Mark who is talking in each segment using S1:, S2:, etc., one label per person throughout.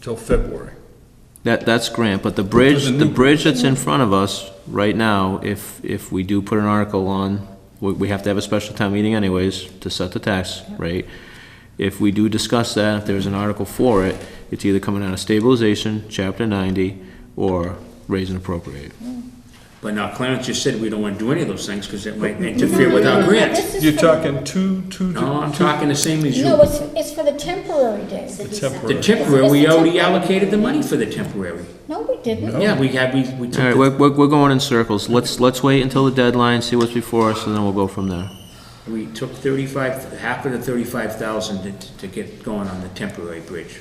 S1: till February.
S2: That, that's grant, but the bridge,
S1: there's a
S2: the
S1: new-
S2: bridge that's in front of us right now, if, if we do put an article on, we, we have to have a special town meeting anyways to set the tax rate. If we do discuss that, if there's an article for it, it's either coming out of stabilization, chapter ninety, or raise and appropriate.
S3: But now Clarence just said we don't want to do any of those things because it might interfere with our grant.
S4: This is
S1: You're
S4: for-
S1: talking two, two,
S3: No, I'm
S1: two,
S3: talking the same as
S4: No,
S3: you.
S4: it's, it's for the temporary days.
S3: The
S1: temporary.
S3: temporary, we already allocated the money for the temporary.
S4: No, we didn't.
S3: Yeah, we had, we, we
S2: All right,
S3: took,
S2: we're,
S3: the-
S2: we're we're going in circles. Let's, let's wait until the deadline, see what's before us, and then we'll go from there.
S3: we took thirty-five, half of the thirty-five thousand to, to get going on the temporary bridge.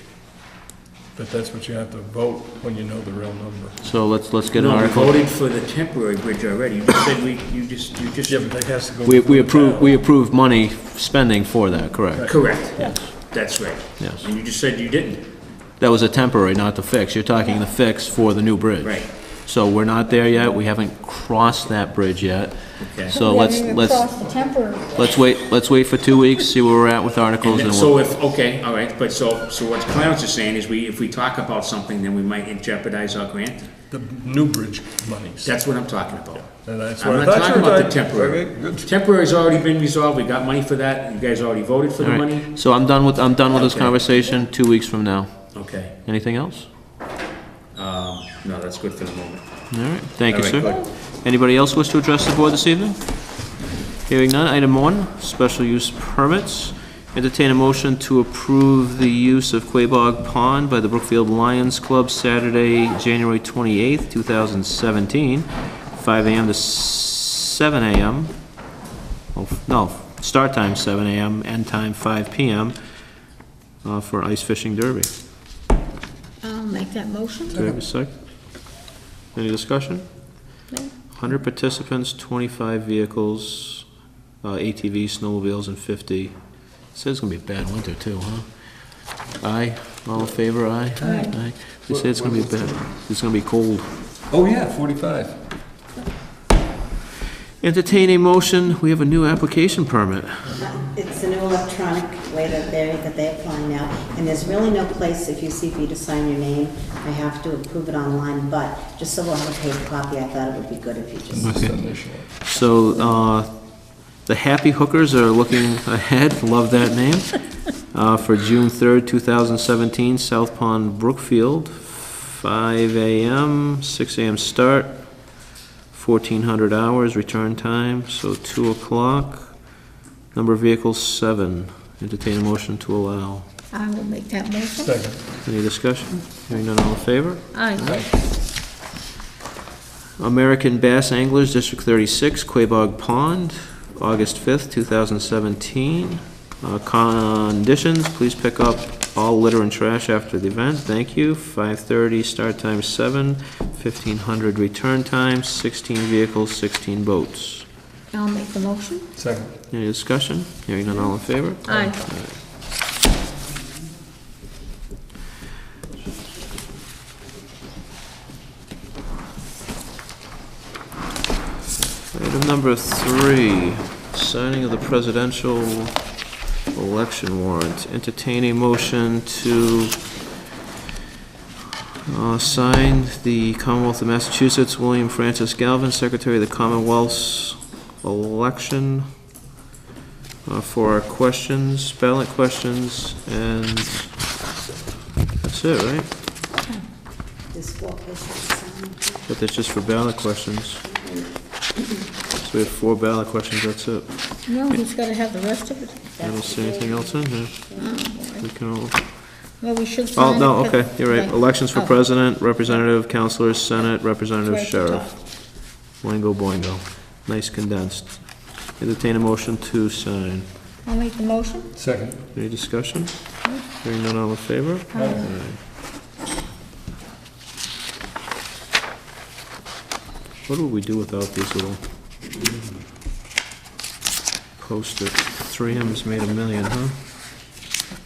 S1: but that's what you have to vote when you know the real number.
S2: So let's, let's get an
S3: No, we
S2: article.
S3: voted for the temporary bridge already. You just said we, you just, you just.
S1: Yeah, but that has to go.
S2: We, we approved, we approved money spending for that, correct?
S3: Correct. That's right.
S2: Yes.
S3: And you just said you didn't.
S2: That was a temporary, not the fix. You're talking the fix for the new bridge.
S3: Right.
S2: So we're not there yet. We haven't crossed that bridge yet.
S3: Okay.
S2: So
S4: We
S2: let's,
S4: haven't even
S2: let's,
S4: crossed the temporary. days.
S2: let's wait, let's wait for two weeks, see where we're at with articles and
S3: So
S2: we'll.
S3: if, okay, all right, but so, so what Clarence is saying is we, if we talk about something, then we might jeopardize our grant?
S1: The new bridge monies.
S3: That's what I'm talking about.
S1: And that's
S3: I'm
S1: what I
S3: not
S1: thought you
S3: talking
S1: were
S3: about the
S1: talking-
S3: temporary.
S1: Okay, good.
S3: Temporary's already been resolved, we got money for that, you guys already voted for
S2: All
S3: the money?
S2: right. So I'm done with, I'm done with this
S3: Okay.
S2: conversation, two weeks from now.
S3: Okay,
S2: Anything else?
S3: um, no, that's good for the moment.
S2: All right, thank you,
S3: All right,
S2: sir. Anybody else wish to address the board this evening? Hearing none, item one, special use permits. Entertain a motion to approve the use of Quabog Pond by the Brookfield Lions Club Saturday, January 28th, 2017, 5 AM to 7 AM. Oh, f- No, start time 7 AM, end time 5 PM uh, for ice fishing derby.
S4: I'll make that motion.
S2: Do we have a sec? Any discussion?
S4: No.
S2: 100 participants, 25 vehicles, uh, ATVs, snowmobiles, and 50. Says it's gonna be a bad winter too, huh? Aye, all in favor, aye?
S4: Aye.
S2: They say it's gonna be bad, it's gonna be cold.
S1: Oh, yeah, forty-five.
S2: Entertain a motion, we have a new application permit.
S5: It's an electronic way that they, that they apply now, and there's really no place, if you see for you to sign your name, I have to approve it online, but just so we'll have a paper copy, I thought it would be good if you just.
S2: So, uh, the Happy Hookers are looking ahead, love that name, uh, for June third, two thousand seventeen, South Pond Brookfield, five AM, six AM start, fourteen hundred hours return time, so two o'clock. Number of vehicles, seven. Entertain a motion to allow.
S4: I will make that motion.
S1: Second.
S2: Any discussion? Hearing none, all in favor?
S4: Aye.
S2: American Bass Anglers, District 36, Quabog Pond, August 5th, 2017. Uh, Conditions, please pick up all litter and trash after the event, thank you. 5:30 start time, 7, 1500 return time, 16 vehicles, 16 boats.
S4: I'll make the motion.
S1: Second.
S2: Any discussion? Hearing none, all in favor?
S4: Aye.
S2: Item number three, signing of the presidential election warrant. Entertain a motion to uh, sign the Commonwealth of Massachusetts, William Francis Galvin, Secretary of the Commonwealth's election uh, for our questions, ballot questions, and that's it, right?
S5: There's four places to sign.
S2: But that's just for ballot questions. So we have four ballot questions, that's it.
S4: No, he's gotta have the rest of it.
S2: I don't see anything else in here.
S4: Mm.
S2: We can all-
S4: Well, we should sign
S2: Oh,
S4: it.
S2: no,
S4: but-
S2: okay, you're right. Elections for
S4: Oh,
S2: president, representative, counselors, senate, representative,
S4: right at the top.
S2: sheriff. Boingo, boingo. Nice condensed. Entertain a motion to sign.
S4: I'll make the motion.
S1: Second.
S2: Any discussion? Hearing none, all in favor? Aye. What would we do without these little post-it? Three M's made a million, huh?